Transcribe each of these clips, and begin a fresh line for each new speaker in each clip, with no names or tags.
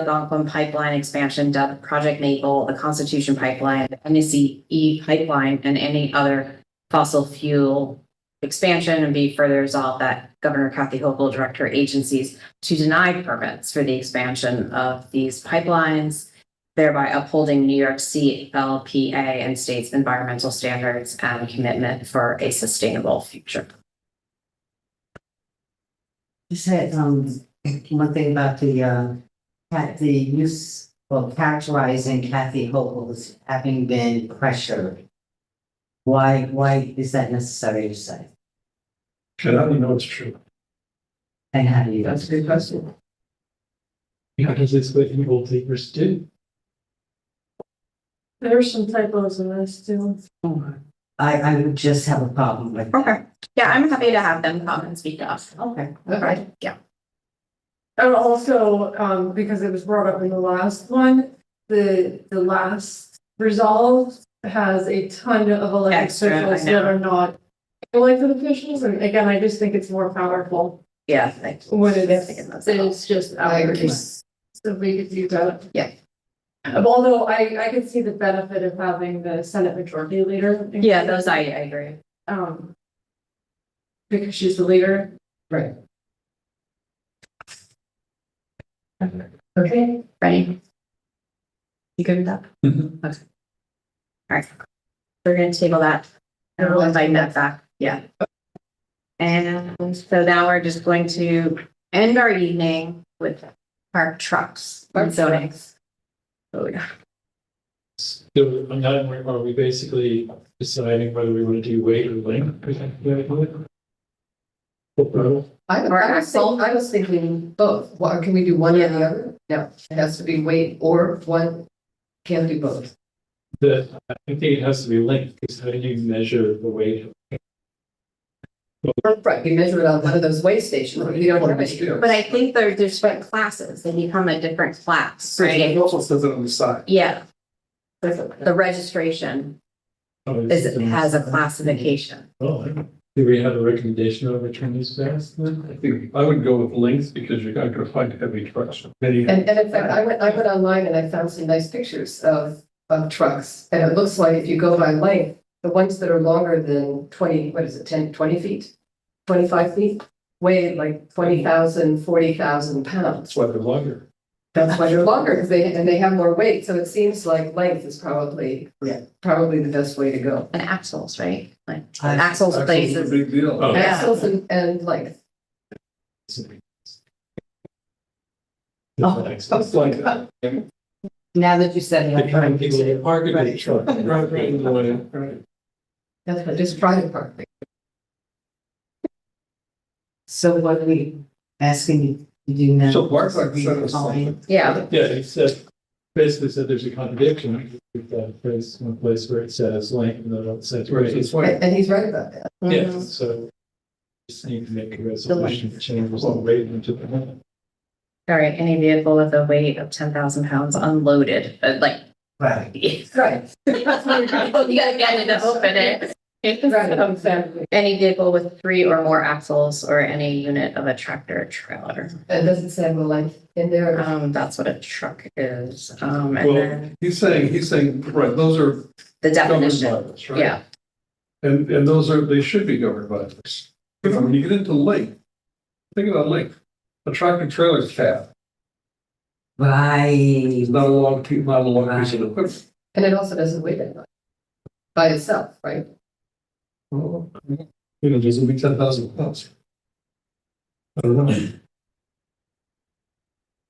Algonquin Pipeline Expansion dubbed Project Maple, the Constitution Pipeline, the NECE E Pipeline, and any other fossil fuel expansion and be further resolved that Governor Kathy Hochul direct her agencies to deny permits for the expansion of these pipelines, thereby upholding New York CLPA and state's environmental standards and commitment for a sustainable future.
You said, um, one thing about the, uh, cat, the use, well, characterizing Kathy Hochul as having been pressured. Why, why is that necessary to say?
Should I know it's true?
And how do you?
That's the question. Because it's what evil takers do.
There are some typos in this too.
I, I would just have a problem with. that.
Okay, yeah, I'm happy to have them come and speak up.
Okay.
Right, yeah.
And also, um, because it was brought up in the last one, the, the last resolve has a ton of elected
Extra, I
officials that are not elected officials, and again, I just think it's more powerful
Yeah. I-
when it is,
Thinking that's-
it's just ours. So we could do that. Um,
Yeah.
Although I, I could see the benefit of having the Senate Majority Leader.
Yeah, those I, I agree.
Um. Because she's the leader.
Right.
Okay.
Ready? You good with that?
Mhm.
Okay. All right. We're gonna table that. And we'll invite that back, yeah. And so now we're just going to end our evening with our trucks, our zonings. Oh, yeah.
So on that one, are we basically deciding whether we want to do weight or length? Is that what we want? Or-
I, I
Or
was thinking, I was thinking both, what, can we do one or the other? No, it has to be weight or one, can't do both.
The, I think it has to be length, because how do you measure the weight?
Right, you measure it on one of those weigh stations, you don't have any.
But I think there, there's different classes, they become a different class,
It
right?
also says it on the side.
Yeah. The registration
Oh,
is,
it's-
has a classification.
Oh, do we have a recommendation on which one is best? then?
I think I would go with links because you're not gonna find heavy trucks. Many-
And, and in fact, I went, I went online and I found some nice pictures of, of trucks, and it looks like if you go by length, the ones that are longer than twenty, what is it, 10, 20 feet? Twenty-five feet, weigh like 20,000, 40,000 pounds.
That's why they're longer.
That's why they're longer, because they, and they have more weight, so it seems like length is probably,
Yeah.
probably the best way to go.
And axles, right? Like
I-
axles
Axles is a
places.
Big deal.
Oh.
Yeah.
Axles and, and length.
Oh.
Stuff like that.
Now that you said
The
it.
kind of people that park a big
Right.
truck, drive right in the way.
Right.
That's what, just private parking.
So what are we asking you to do now?
So Bart's like,
Are we
send us
calling?
something.
Yeah,
Yeah, it said, basically said there's a contradiction with that place, one place where it says length and then it says
Where it's
rate.
this way.
And and he's right about that.
Mm-hmm.
Yeah, so just need to make a resolution to change the rate into the.
all right, any vehicle with a weight of ten thousand pounds unloaded, but like.
Right.
You
Right.
gotta get it to open it.
Right.
Any vehicle with three or more axles or any unit of a tractor or trailer.
It doesn't say the length in there.
Um, that's what a truck is. Um, and
Well,
then
he's saying, he's saying, right, those are
the
governed by
definition,
this, right?
yeah.
And, and those are, they should be governed by this. You know, When you get into length, think about length. A tractor trailer cab
Right.
is not a long, pe- not a long piece of equipment.
And it also doesn't weigh that much. By itself, right?
Well, You know, there's gonna be ten thousand pounds. I don't know.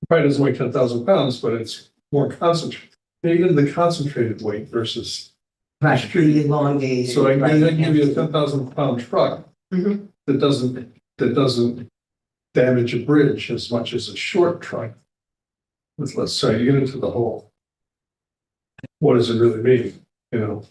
Probably doesn't weigh ten thousand pounds, but it's more concentrated, even the concentrated weight versus.
Right, the elongated.
So I
right,
can I can give you a
and-
ten thousand pound truck.
Mm-hmm.
That doesn't, that doesn't damage a bridge as much as a short truck. With less, so you get into the whole. What does it really mean, you know?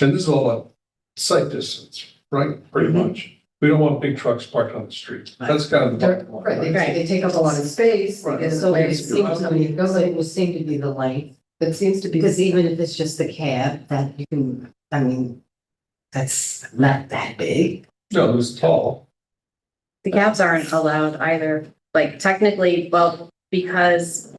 And this is all about sight distance, right, pretty
Mm-hmm.
much. We don't want big trucks parked on the street. That's kind of the
They're,
bottom line.
right, they,
Right.
they take up a lot of space.
Right.
It's
So
the way
it
it
seems,
seems,
I mean, it would seem to be the length,
it seems to be.
because even if it's just the cab, that you can, I mean, that's not that big.
No, it's tall.
The cabs aren't allowed either, like technically, well, because